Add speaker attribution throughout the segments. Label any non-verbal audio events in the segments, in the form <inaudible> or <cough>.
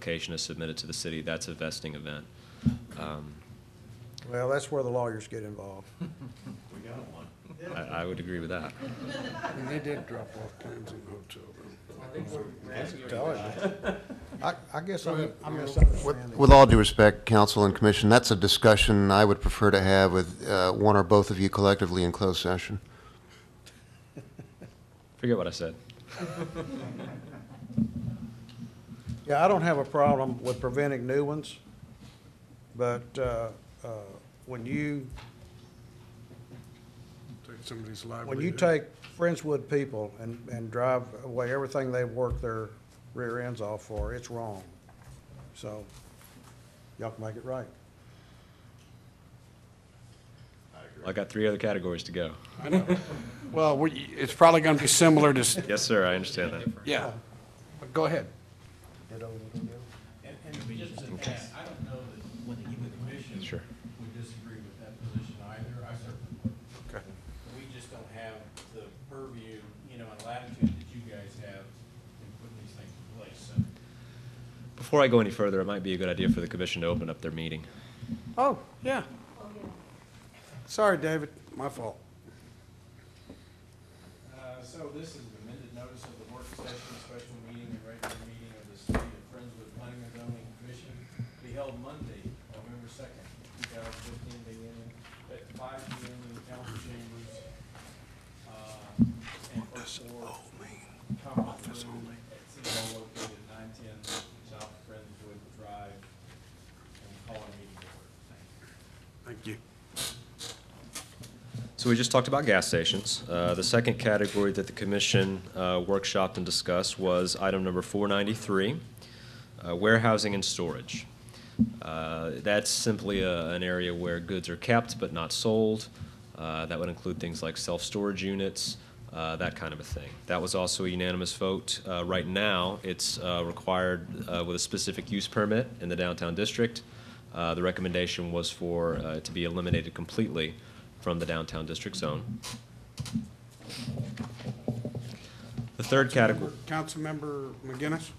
Speaker 1: application is submitted to the city, that's a vesting event. Um,
Speaker 2: Well, that's where the lawyers get involved.
Speaker 1: I, I would agree with that.
Speaker 3: And they did drop off plans in the hotel room.
Speaker 2: I, I guess I'm I'm
Speaker 4: With-
Speaker 2: misunderstanding.
Speaker 4: With all due respect, council and commission, that's a discussion I would prefer to have with uh, one or both of you collectively in closed session.
Speaker 1: Forget what I said.
Speaker 2: Yeah, I don't have a problem with preventing new ones, but, uh, uh, when you,
Speaker 3: Take somebody's
Speaker 2: when you
Speaker 3: livelihood.
Speaker 2: take Friendswood people and, and drive away everything they've worked their rear ends off for, it's wrong. So, y'all can make it right.
Speaker 1: I got three other categories to go.
Speaker 3: Well, we- it's probably going to be similar to, s-
Speaker 1: Yes, sir, I understand that.
Speaker 3: yeah. But Go ahead.
Speaker 5: And, and just to add, I don't know that the commission
Speaker 1: Sure.
Speaker 5: would disagree with that position either, I certainly would. We just don't have the purview, you know, and latitude that you guys have in putting these things in place, so.
Speaker 1: Before I go any further, it might be a good idea for the commission to open up their meeting.
Speaker 3: <laughs> Oh, yeah. Sorry, David, my fault.
Speaker 5: Uh, so this is an amended notice of the work session, special meeting, and regular meeting of the City of Friendswood Planning and Zoning Commission to be held Monday, November second, two thousand fifteen, beginning at five P M in the council chambers. uh, And for conference room at City Hall located nine ten South Friendswood Drive, and we call a meeting to order. Thank
Speaker 3: Thank
Speaker 5: you.
Speaker 3: you.
Speaker 1: So we just talked about gas stations. Uh, The second category that the commission uh, workshopped and discussed was item number 493, uh, warehousing and storage. Uh, That's simply a- an area where goods are kept but not sold. Uh, That would include things like self-storage units, uh, that kind of a thing. That was also a unanimous vote. Uh, Right now, it's uh, required uh, with a specific use permit in the downtown district. Uh, The recommendation was for uh, it to be eliminated completely from the downtown district zone. The third category,
Speaker 3: Councilmember McGinnis?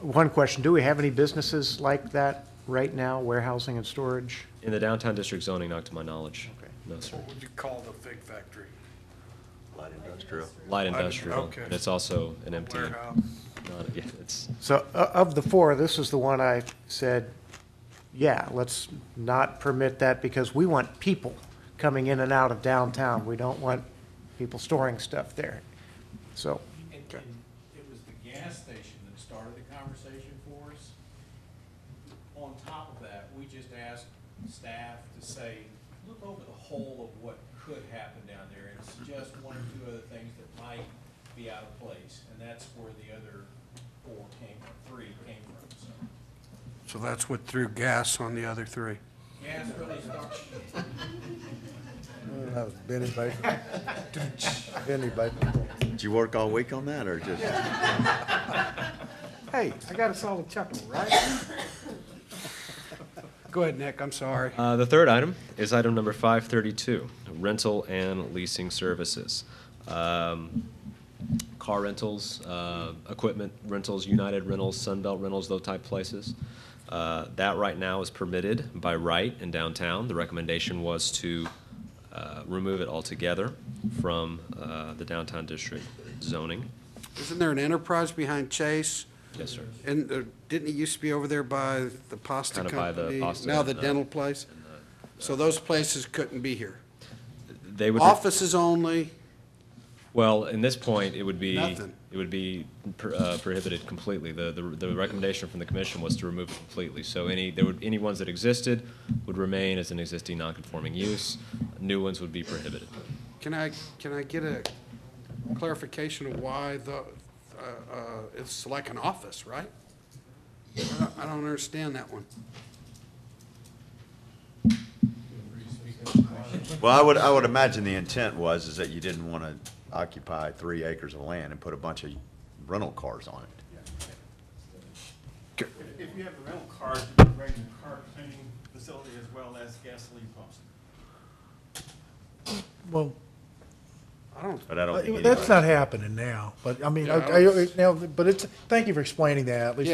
Speaker 6: One question, do we have any businesses like that right now, warehousing and storage?
Speaker 1: in the downtown district zoning, not to my knowledge.
Speaker 6: Okay.
Speaker 1: No, sir.
Speaker 3: What would you call the fig factory?
Speaker 1: Light industrial,
Speaker 3: okay.
Speaker 1: and it's also an MTM.
Speaker 3: Warehouse?
Speaker 1: Not, yeah, it's,
Speaker 6: So o- of the four, this is the one I said, yeah, let's not permit that because we want people coming in and out of downtown. We don't want people storing stuff there. So,
Speaker 5: And,
Speaker 3: Okay.
Speaker 5: and it was the gas station that started the conversation for us. On top of that, we just asked staff to say, look over the whole of what could happen down there and suggest one or two other things that might be out of place. And that's where the other four came, three came from, so.
Speaker 3: So that's what threw gas on the other three.
Speaker 5: Gas really started,
Speaker 2: That was Benny
Speaker 3: <laughs>
Speaker 2: Baker. Benny Baker.
Speaker 7: Did you work all week on that, or just?
Speaker 3: Hey, I got us all a chuckle, right? Go ahead, Nick, I'm sorry.
Speaker 1: Uh, The third item is item number 532, rental and leasing services. Um, Car rentals, uh, equipment rentals, United Rentals, Sunbelt Rentals, those type places. Uh, That right now is permitted by right in downtown. The recommendation was to uh, remove it altogether from uh, the downtown district zoning.
Speaker 3: Isn't there an enterprise behind Chase?
Speaker 1: Yes, sir.
Speaker 3: And there- didn't it used to be over there by the pasta
Speaker 1: Kinda by the
Speaker 3: company?
Speaker 1: pasta uh,
Speaker 3: Now the
Speaker 1: and the-
Speaker 3: dental place? So those places couldn't be here.
Speaker 1: They would.
Speaker 3: Offices only,
Speaker 1: Well, in this point, it would be,
Speaker 3: Nothing.
Speaker 1: it would be pr- uh, prohibited completely. The, the, the recommendation from the commission was to remove it completely. So any, there would, any ones that existed would remain as an existing non-conforming use. New ones would be prohibited.
Speaker 3: can I, can I get a clarification of why the, uh, uh, it's like an office, right? I don't- I don't understand that one.
Speaker 7: Well, I would, I would imagine the intent was, is that you didn't want to occupy three acres of land and put a bunch of rental cars on it.
Speaker 8: If you have a rental car, you can rent a car cleaning facility as well as gasoline pumps.
Speaker 6: well,
Speaker 3: I don't,
Speaker 7: But I don't think
Speaker 6: That's
Speaker 7: anybody-
Speaker 6: not happening now, but I mean,
Speaker 3: Yeah, I
Speaker 6: okay,
Speaker 3: don't-
Speaker 6: now, but it's, thank you for explaining that, at least